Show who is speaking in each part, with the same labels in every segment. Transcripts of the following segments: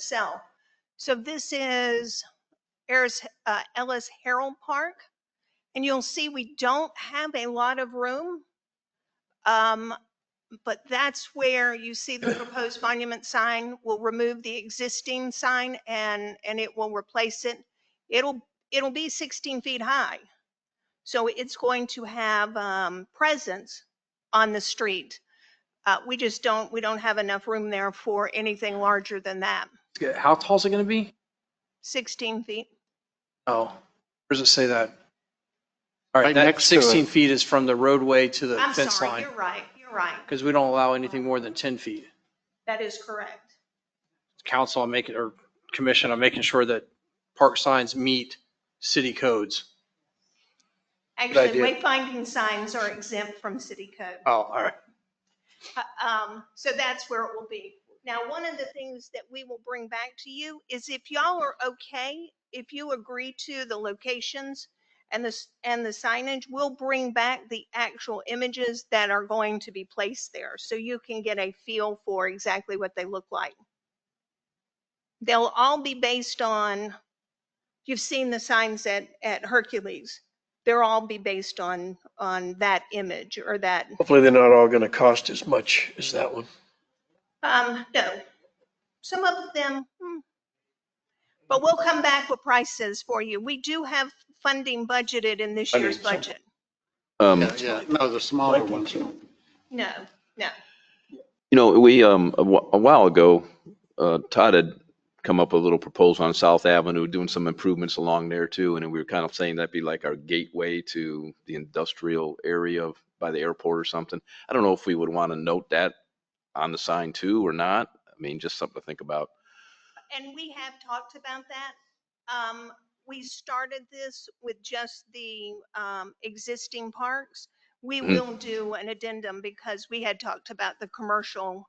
Speaker 1: sell. So this is Eris- uh, Ellis Harold Park. And you'll see we don't have a lot of room. Um, But that's where you see the proposed monument sign. We'll remove the existing sign and, and it will replace it. It'll, it'll be 16 feet high. So it's going to have um, presence on the street. Uh, We just don't, we don't have enough room there for anything larger than that.
Speaker 2: Yeah, How tall is it going to be?
Speaker 1: 16 feet.
Speaker 2: Oh, where does it say that? All right,
Speaker 3: Right
Speaker 2: that
Speaker 3: next to it.
Speaker 2: 16 feet is from the roadway to the
Speaker 1: I'm
Speaker 2: fence
Speaker 1: sorry,
Speaker 2: line,
Speaker 1: you're right, you're right.
Speaker 2: because we don't allow anything more than 10 feet.
Speaker 1: That is correct.
Speaker 2: Council, I'm making, or commission, I'm making sure that park signs meet city codes.
Speaker 1: Actually,
Speaker 3: idea.
Speaker 1: wayfinding signs are exempt from city code.
Speaker 2: Oh, all right.
Speaker 1: Um, so that's where it will be. Now, one of the things that we will bring back to you is if y'all are okay, if you agree to the locations and this, and the signage, we'll bring back the actual images that are going to be placed there. So you can get a feel for exactly what they look like. They'll all be based on, you've seen the signs at, at Hercules. They'll all be based on, on that image or that,
Speaker 3: Hopefully they're not all going to cost as much as that one.
Speaker 1: Um, no. Some of them, hmm. but we'll come back with prices for you. We do have funding budgeted in this
Speaker 3: I
Speaker 1: year's
Speaker 3: mean, some-
Speaker 1: budget.
Speaker 4: Um,
Speaker 3: yeah.
Speaker 5: No, the smaller ones.
Speaker 1: No, no.
Speaker 4: you know, we, um, a wh- a while ago, uh, Todd had come up with a little proposal on South Avenue, doing some improvements along there too. And we were kind of saying that'd be like our gateway to the industrial area of, by the airport or something. I don't know if we would want to note that on the sign too or not. I mean, just something to think about.
Speaker 1: And we have talked about that. Um, we started this with just the, um, existing parks. We
Speaker 4: Mhm.
Speaker 1: will do an addendum because we had talked about the commercial.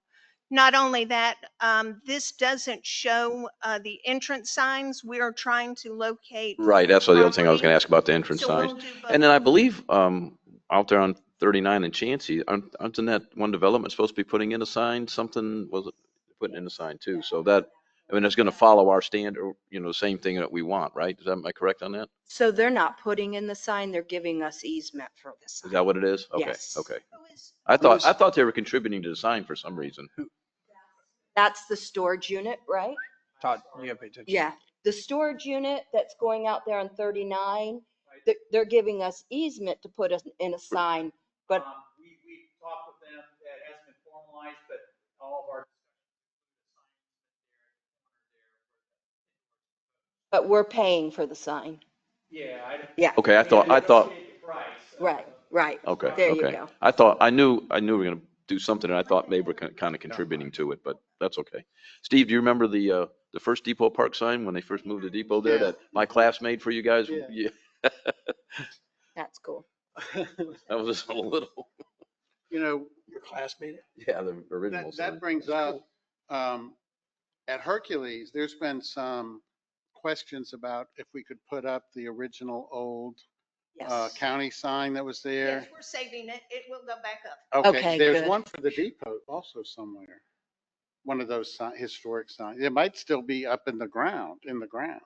Speaker 1: Not only that, um, this doesn't show, uh, the entrance signs. We are trying to locate.
Speaker 4: Right, that's the other thing I was
Speaker 1: Property.
Speaker 4: gonna ask about the entrance
Speaker 1: So
Speaker 4: signs.
Speaker 1: we'll do both.
Speaker 4: And then I believe, um, out there on thirty-nine and Chancy, aren't, aren't in that one development supposed to be putting in a sign, something was it putting in a sign too? So that, I mean, it's gonna follow our standard, you know, the same thing that we want, right? Is that, am I correct on that?
Speaker 6: So they're not putting in the sign, they're giving us easement for the
Speaker 4: Is
Speaker 6: sign.
Speaker 4: that what it is? Okay,
Speaker 6: Yes.
Speaker 4: okay.
Speaker 1: Who is-
Speaker 4: I thought,
Speaker 3: Who's-
Speaker 4: I thought they were contributing to the sign for some reason.
Speaker 6: That's the storage unit, right?
Speaker 2: Todd, you got to pay attention.
Speaker 6: Yeah. The storage unit that's going out there on 39, they're, they're giving us easement to put us in a sign. But-
Speaker 7: Um, We, we talked with them, that hasn't been formalized, but all of our.
Speaker 6: But we're paying for the sign.
Speaker 7: Yeah, I.
Speaker 6: Yeah,
Speaker 4: Okay, I thought, I thought,
Speaker 7: Negotiate the price.
Speaker 6: right, right.
Speaker 4: okay,
Speaker 6: There you
Speaker 4: okay.
Speaker 6: go.
Speaker 4: I thought, I knew, I knew we were gonna do something and I thought they were kind of contributing to it, but that's okay. Steve, do you remember the, uh, the first Depot Park sign when they first moved to Depot there
Speaker 5: Yeah.
Speaker 4: that my class made for you guys?
Speaker 5: Yeah.
Speaker 4: Yeah,
Speaker 6: That's cool.
Speaker 4: That was just a little.
Speaker 5: You know,
Speaker 3: Your classmate?
Speaker 4: Yeah, the
Speaker 5: that,
Speaker 4: original
Speaker 5: that brings up, um, at Hercules, there's been some questions about if we could put up the original old, uh,
Speaker 6: Yes.
Speaker 5: county sign that was there.
Speaker 1: Yes, we're saving it. It will go back up.
Speaker 6: Okay,
Speaker 5: There's
Speaker 6: good.
Speaker 5: one for the depot also somewhere. One of those si- historic signs. It might still be up in the ground, in the ground.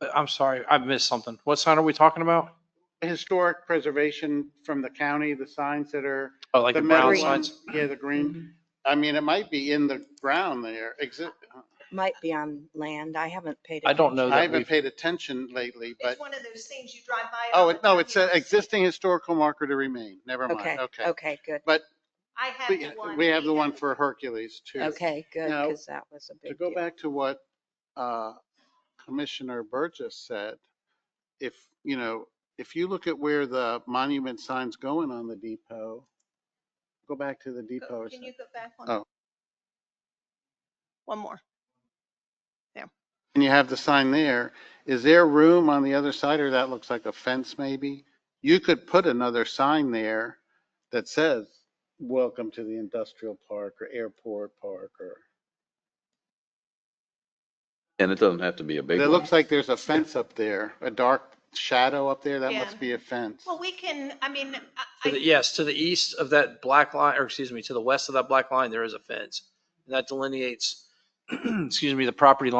Speaker 2: Uh, I'm sorry, I missed something. What sign are we talking about?
Speaker 5: Historic preservation from the county, the signs that are
Speaker 2: Oh, like the
Speaker 5: metal
Speaker 2: brown
Speaker 6: Green.
Speaker 2: signs?
Speaker 5: ones, Yeah, the
Speaker 6: Mm-hmm.
Speaker 5: green. I mean, it might be in the ground there. Exi-
Speaker 6: Might be on land. I haven't paid.
Speaker 2: I don't know
Speaker 6: attention.
Speaker 5: I
Speaker 2: that we've,
Speaker 5: haven't paid attention lately, but,
Speaker 1: It's one of those things you drive by.
Speaker 5: oh,
Speaker 1: and
Speaker 5: it- no,
Speaker 1: you
Speaker 5: it's an
Speaker 1: don't see.
Speaker 5: existing historical marker to remain. Never
Speaker 6: Okay,
Speaker 5: mind. Okay.
Speaker 6: okay, good.
Speaker 1: I have
Speaker 5: We-
Speaker 1: the one.
Speaker 5: We have the one
Speaker 1: for.
Speaker 5: for Hercules too.
Speaker 6: Okay, good,
Speaker 5: Now,
Speaker 6: because that was a
Speaker 5: To
Speaker 6: big
Speaker 5: go
Speaker 6: deal.
Speaker 5: back to what uh, Commissioner Burgess said, if, you know, if you look at where the monument sign's going on the depot, go back to the depot. or
Speaker 1: Oh, Can
Speaker 5: something.
Speaker 1: you go back one?
Speaker 5: Oh.
Speaker 1: One more.
Speaker 5: And you have the sign there. Is there room on the other side or that looks like a fence maybe? You could put another sign there that says, welcome to the industrial park or airport park or.
Speaker 4: And it doesn't have to be a big
Speaker 5: It
Speaker 4: one.
Speaker 5: looks like there's a fence up there, a dark shadow up there. That
Speaker 1: Yeah.
Speaker 5: must be a fence.
Speaker 1: Well, we can, I mean, I-
Speaker 2: to the-
Speaker 1: I,
Speaker 2: yes, to the east of that black line, or excuse me, to the west of that black line, there is a fence. And that delineates, excuse me, the property line.